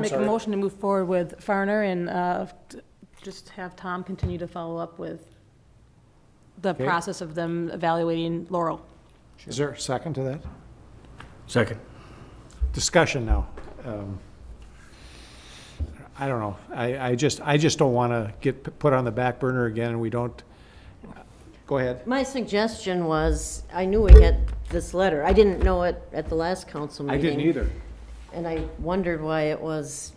Make a sorry. motion to move forward with Farner and uh, t- just have Tom continue to follow up with the Okay. process of them evaluating Laurel. Is there a second to that? Second. Discussion now. Um, I don't know. I, I just, I just don't want to get p- put on the back burner again, and we don't. Go ahead. My suggestion was, I knew we had this letter. I didn't know it at the last council I meeting. didn't either. And I wondered why it was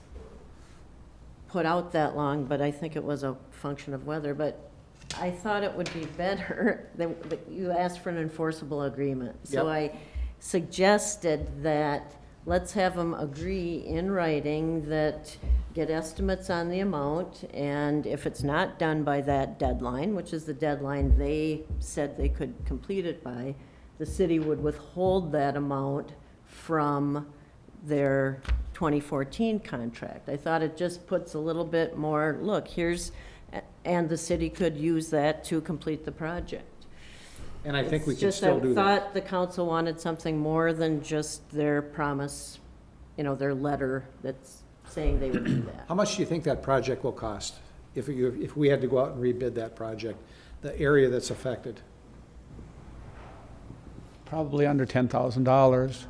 put out that long, but I think it was a function of weather. But I thought it would be better than, that you asked for an enforceable agreement. So Yep. I suggested that, let's have them agree in writing that, get estimates on the amount, and if it's not done by that deadline, which is the deadline they said they could complete it by, the city would withhold that amount from their 2014 contract. I thought it just puts a little bit more, look, here's, and the city could use that to complete the project. And I think we It's can just still I do that. Thought the council wanted something more than just their promise, you know, their letter that's saying they would do that. How much do you think that project will cost? If you, if we had to go out and rebid that project, the area that's affected? Probably under ten thousand dollars.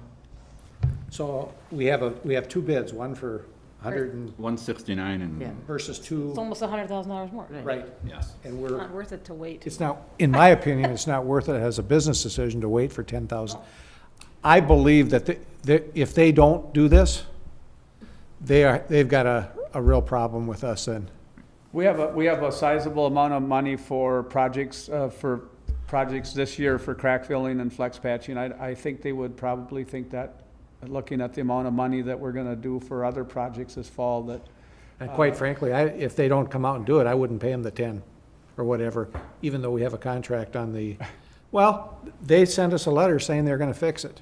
So we have a, we have two bids, one for 100 and 169 Yeah. and, versus It's two, almost $100,000 more. right? yes. It's And we're, not worth it to wait. It's not, in my opinion, it's not worth it as a business decision to wait for ten thousand. I believe that, the- that if they don't do this, they are, they've got a, a real problem with us and, We have a, we have a sizable amount of money for projects, uh, for projects this year for crack filling and flex patching. I, I think they would probably think that, looking at the amount of money that we're gonna do for other projects this fall, that and quite frankly, I, if they don't come out and do it, I wouldn't pay them the ten or whatever, even though we have a contract on the, well, they sent us a letter saying they're gonna fix it.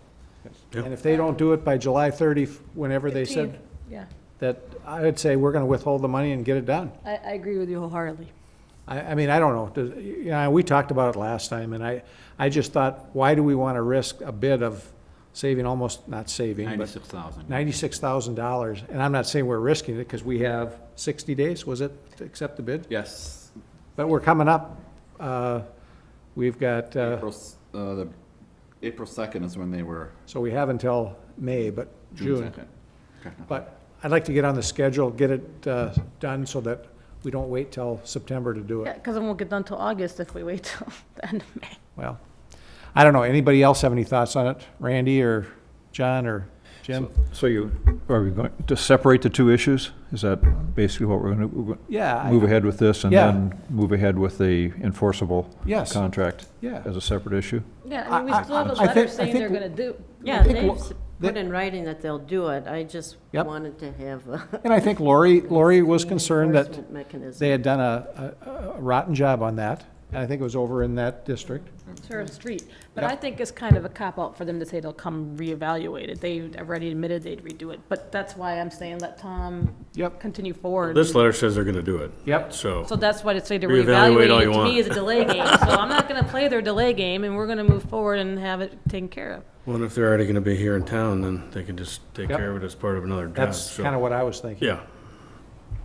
Yeah. And if they don't do it by July thirty, whenever they said, 15th, Yeah, that, I would say we're gonna withhold the money and get it done. I, I agree with you wholeheartedly. I, I mean, I don't know, does, you know, we talked about it last time, and I, I just thought, why do we wanna risk a bid of saving almost, not saving, but 96,000. ninety-six thousand dollars, and I'm not saying we're risking it, cause we have sixty days, was it, to accept the bid? Yes. But we're coming up, uh, we've got, uh, April s- uh, the- April 2nd is when they were, so we have until May, but June June. 2nd. technically. But I'd like to get on the schedule, get it, uh, done, so that we don't wait till September to do it. Yeah, because it won't get done till August if we wait till the end of May. Well, I don't know, anybody else have any thoughts on it? Randy or John or Jim? So you, are we going to separate the two issues? Is that basically what we're going Yeah, to, move I- ahead with this and Yeah. then move ahead with the enforceable yes, contract yeah. as a separate issue? Yeah, I mean, I- we still have I- a I letter think- I saying they're think- going to do. Yeah, think they've wha- s- they- put in writing that they'll do it. I just Yep. wanted to have a. And I think Lori, Lori was concerned that enforcement mechanism. they had done a, a a rotten job on that, and I think it was over in that district. Sure, street. But I think it's kind of a cop-out for them to say they'll come reevaluate it. They already admitted they'd redo it. But that's why I'm saying let Tom Yep, continue forward. This letter says they're gonna do it, yep, so. So that's why it's say to Reevaluate all reevaluate, you it to want. me is a delay game. So I'm not gonna play their delay game, and we're gonna move forward and have it taken care of. Well, if they're already gonna be here in town, then they can just take Yep. care of it as part of another job. that's so- kind of what I was thinking. Yeah,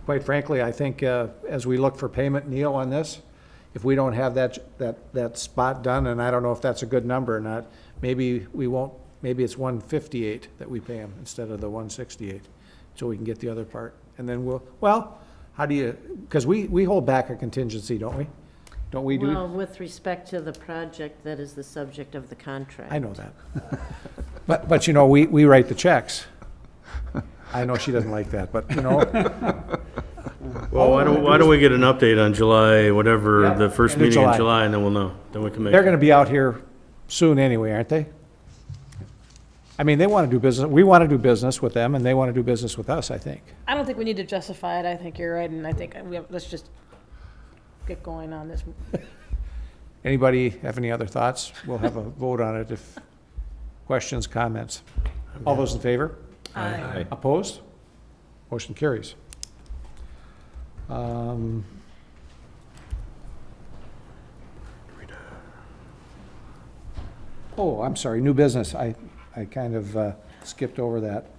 Quite frankly, I think, uh, as we look for payment, Neil, on this, if we don't have that, that, that spot done, and I don't know if that's a good number or not, maybe we won't, maybe it's one fifty-eight that we pay him instead of the one sixty-eight, so we can get the other part. And then we'll, well, how do you, because we, we hold back a contingency, don't we? Don't we do? Well, with respect to the project that is the subject of the contract. I know that. But, but you know, we, we write the checks. I know she doesn't like that, but you know, well, why don't, why don't we get an update on July, whatever, Yeah, the first end of meeting July. in July, and then we'll know, then we can make. they're gonna be out here soon anyway, aren't they? I mean, they wanna do business, we wanna do business with them, and they wanna do business with us, I think. I don't think we need to justify it. I think you're right, and I think we have, let's just get going on this. Anybody have any other thoughts? We'll have a vote on it if, questions, comments. All those in favor? Aye. Opposed? Motion carries. Um, Oh, I'm sorry, new business. I, I kind of uh, skipped over that.